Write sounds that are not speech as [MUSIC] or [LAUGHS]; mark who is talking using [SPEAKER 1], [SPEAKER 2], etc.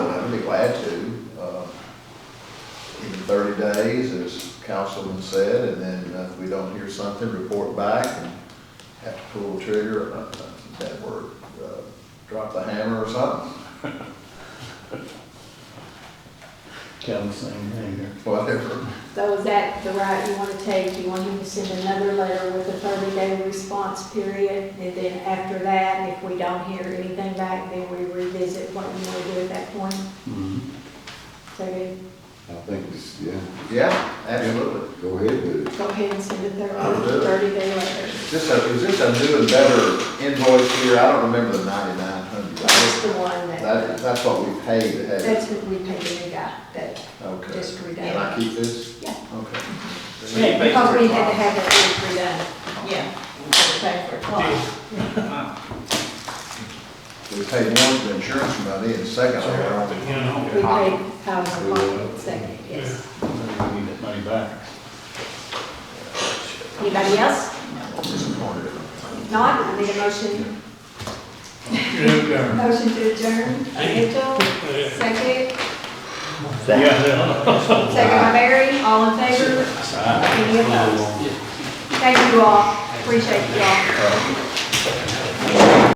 [SPEAKER 1] Uh, glad to, uh, in thirty days, as Councilman said, and then uh, if we don't hear something, report back and have to pull the trigger, uh, that word, uh, drop the hammer or something, [LAUGHS]
[SPEAKER 2] Kind of same thing here.
[SPEAKER 1] whatever.
[SPEAKER 3] So is that the route you want to take? You want him to send another letter with a thirty-day response period? And then after that, if we don't hear anything back, then we revisit what we want to do at that point?
[SPEAKER 1] Mm-hmm.
[SPEAKER 3] So then
[SPEAKER 4] I think it's, yeah,
[SPEAKER 1] Yeah, absolutely.
[SPEAKER 4] go ahead with it.
[SPEAKER 3] go ahead and send a
[SPEAKER 1] I'll do it.
[SPEAKER 3] thirty-day letter.
[SPEAKER 1] Is this a, is this a new and better invoice here? I don't remember the ninety-nine
[SPEAKER 3] That's
[SPEAKER 1] hundred.
[SPEAKER 3] the one
[SPEAKER 1] That,
[SPEAKER 3] that,
[SPEAKER 1] that's what we paid to have it.
[SPEAKER 3] that's what we paid the guy that
[SPEAKER 1] Okay.
[SPEAKER 3] just redone.
[SPEAKER 1] Can I keep this?
[SPEAKER 3] Yeah.
[SPEAKER 1] Okay.
[SPEAKER 3] Yeah, Because we had to have that redone, yeah. Pay for it twice.
[SPEAKER 1] We paid one for insurance money and second, I don't think-
[SPEAKER 3] We paid Powell's Market second, yes.
[SPEAKER 2] We need that money back.
[SPEAKER 3] Anybody else?
[SPEAKER 1] I'm disappointed.
[SPEAKER 3] Not, I need a motion. Motion to adjourn, Mitchell, second, second by Mary, all in favor? Any opposed? Thank you all, appreciate you all.